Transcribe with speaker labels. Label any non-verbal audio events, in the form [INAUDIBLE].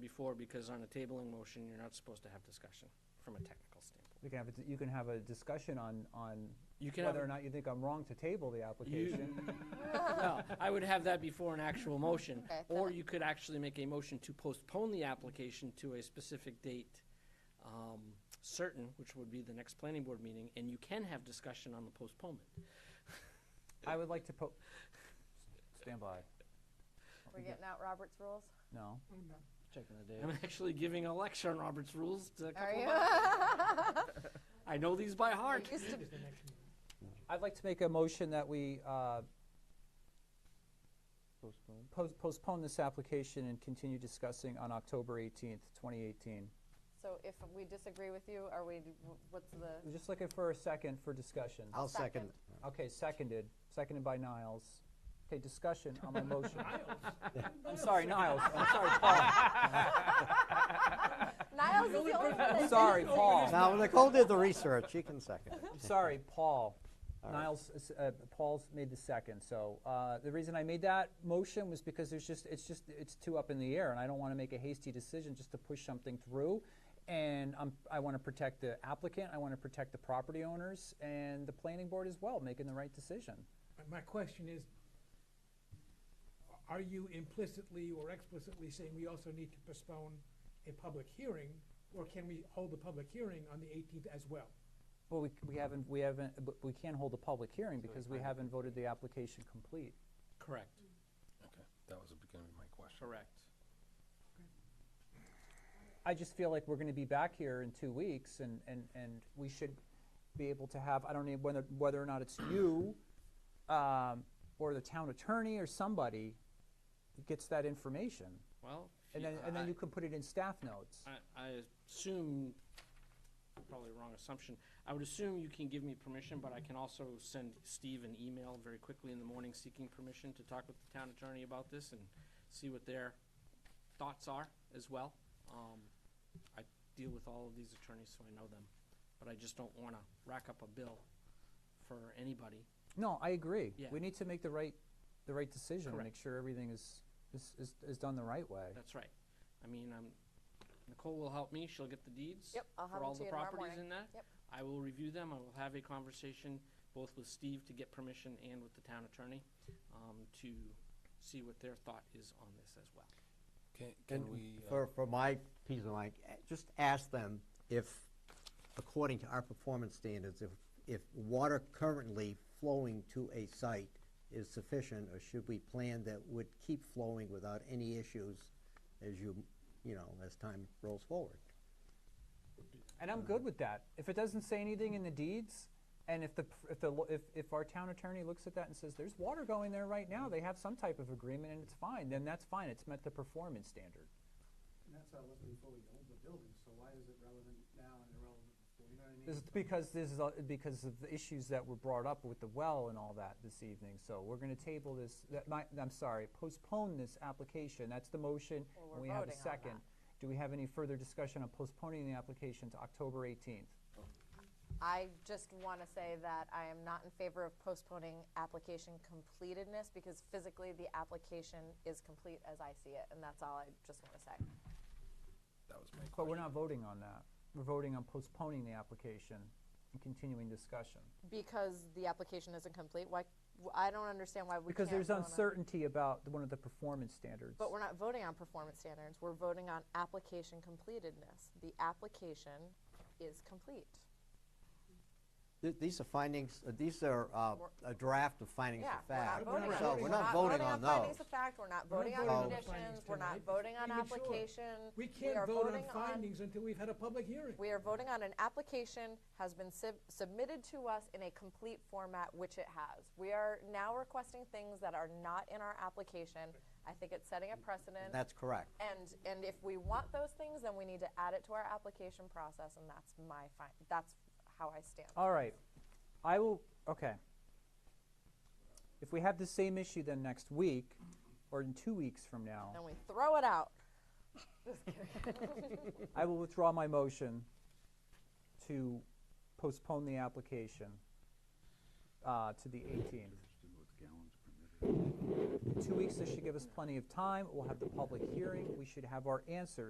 Speaker 1: before, because on a tabling motion, you're not supposed to have discussion from a technical standpoint.
Speaker 2: You can have, a d- you can have a discussion on, on
Speaker 1: You can have [LAUGHS]
Speaker 2: whether
Speaker 1: a-
Speaker 2: or not you think I'm wrong to table the application.
Speaker 1: No, I would have that before an actual motion,
Speaker 3: Okay,
Speaker 1: or
Speaker 3: fine.
Speaker 1: you could actually make a motion to postpone the application to a specific date, um, certain, which would be the next planning board meeting, and you can have discussion on the postponement.
Speaker 2: [LAUGHS] I would like to po, stand by.
Speaker 3: We're getting out Robert's rules.
Speaker 2: No,
Speaker 4: Checking the
Speaker 1: I'm actually giving a lecture on Robert's rules to a
Speaker 3: Are
Speaker 1: couple of us.
Speaker 3: you?
Speaker 1: I know these by heart.
Speaker 3: Used to- [LAUGHS]
Speaker 2: I'd like to make a motion that we, uh,
Speaker 4: Postpone.
Speaker 2: pos- postpone this application and continue discussing on October eighteenth, twenty eighteen.
Speaker 3: So if we disagree with you, are we, what's the?
Speaker 2: We're Just looking for a second for discussion.
Speaker 4: I'll
Speaker 3: second.
Speaker 4: second.
Speaker 2: Okay, seconded, seconded by Niles. Okay, discussion on my
Speaker 4: [LAUGHS]
Speaker 2: motion. I'm sorry, Niles, I'm sorry, Paul,
Speaker 3: Niles is the only one that
Speaker 2: I'm
Speaker 3: did.
Speaker 2: sorry, Paul.
Speaker 4: Now, Nicole did the research, she can second it. [LAUGHS]
Speaker 2: Sorry, Paul.
Speaker 4: All right.
Speaker 2: Niles, s- uh, Paul's made the second, so, uh, the reason I made that motion was because there's just, it's just, it's too up in the air, and I don't wanna make a hasty decision just to push something through. And I'm, I wanna protect the applicant, I wanna protect the property owners, and the planning board as well, making the right decision.
Speaker 5: My- My question is, are you implicitly or explicitly saying we also need to postpone a public hearing? Or can we hold the public hearing on the eighteenth as well?
Speaker 2: Well, we, we haven't, we haven't, but we can't hold a public hearing because we haven't voted the application complete.
Speaker 1: Correct,
Speaker 6: Okay, that was gonna be my question.
Speaker 1: correct.
Speaker 2: I just feel like we're gonna be back here in two weeks and, and, and we should be able to have, I don't know whether, whether or not it's
Speaker 1: [CLEARS THROAT]
Speaker 2: you, um, or the town attorney or somebody gets that information.
Speaker 1: Well.
Speaker 2: And
Speaker 1: yeah,
Speaker 2: then, and then
Speaker 1: I-
Speaker 2: you can put it in staff notes.
Speaker 1: I, I assume, probably a wrong assumption, I would assume you can give me permission, but I can also send Steve an email very quickly in the morning seeking permission to talk with the town attorney about this and see what their thoughts are as well. Um, I deal with all of these attorneys, so I know them, but I just don't wanna rack up a bill for anybody.
Speaker 2: No, I agree.
Speaker 1: Yeah.
Speaker 2: We need to make the right, the right decision, and
Speaker 1: Correct.
Speaker 2: make sure everything is, is, is, is done the right way.
Speaker 1: That's right. I mean, um, Nicole will help me, she'll get the deeds.
Speaker 3: Yep, I'll have
Speaker 1: For
Speaker 3: them
Speaker 1: all
Speaker 3: to
Speaker 1: the
Speaker 3: you tomorrow
Speaker 1: properties
Speaker 3: morning.
Speaker 1: in that.
Speaker 3: Yep.
Speaker 1: I will review them, I will have a conversation both with Steve to get permission and with the town attorney, um, to see what their thought is on this as well.
Speaker 6: Can,
Speaker 4: And
Speaker 6: can we, uh,
Speaker 4: for, for my piece of mind, eh, just ask them if, according to our performance standards, if, if water currently flowing to a site is sufficient, or should we plan that would keep flowing without any issues as you, you know, as time rolls forward?
Speaker 2: And I'm good with that. If it doesn't say anything in the deeds, and if the, pr- if the, lo- if, if our town attorney looks at that and says, there's water going there right now, they have some type of agreement and it's fine, then that's fine, it's met the performance standard.
Speaker 7: And that's how it was before we owned the building, so why is it relevant now and irrelevant before, you know what I mean?
Speaker 2: This is because this is, uh, because of the issues that were brought up with the well and all that this evening, so we're gonna table this, that my, I'm sorry, postpone this application, that's the motion,
Speaker 3: Well,
Speaker 2: and
Speaker 3: we're
Speaker 2: we have a
Speaker 3: voting on that.
Speaker 2: second. Do we have any further discussion on postponing the application to October eighteenth?
Speaker 3: I just want to say that I am not in favor of postponing application completedness because physically the application is complete as I see it, and that's all I just want to say.
Speaker 6: that was my question.
Speaker 2: But we're not voting on that. We're voting on postponing the application and continuing discussion.
Speaker 3: Because the application isn't complete, why, w- I don't understand why we can't.
Speaker 2: Because there's
Speaker 3: vote on-
Speaker 2: uncertainty about the- one of the performance standards.
Speaker 3: But we're not voting on performance standards, we're voting on application completedness. The application is complete.
Speaker 4: Th- These are findings, uh, these are uh, a draft of findings
Speaker 3: Yeah,
Speaker 4: of
Speaker 3: we're not
Speaker 4: fact.
Speaker 3: voting on.
Speaker 4: So
Speaker 3: it.
Speaker 4: we're not voting on
Speaker 3: findings
Speaker 4: those.
Speaker 3: of fact, we're not
Speaker 5: We're not
Speaker 3: voting on
Speaker 5: voting on
Speaker 3: conditions,
Speaker 5: findings
Speaker 3: we're not
Speaker 5: tonight.
Speaker 3: voting on
Speaker 5: Even sure.
Speaker 3: application.
Speaker 5: We
Speaker 3: are
Speaker 5: can't vote on
Speaker 3: voting
Speaker 5: findings until we've had a public hearing.
Speaker 3: We are voting on an application has been sub- submitted to us in a complete format, which it has. We are now requesting things that are not in our application. I think it's setting a precedent.
Speaker 4: That's correct.
Speaker 3: And, and if we want those things, then we need to add it to our application process, and that's my fi- that's how I stand.
Speaker 2: All right. I will, okay. If we have the same issue then next week, or in two weeks from now,
Speaker 3: And we throw it out.
Speaker 2: I will withdraw my motion to postpone the application uh, to the 18th. In two weeks, this should give us plenty of time. We'll have the public hearing. We should have our answers.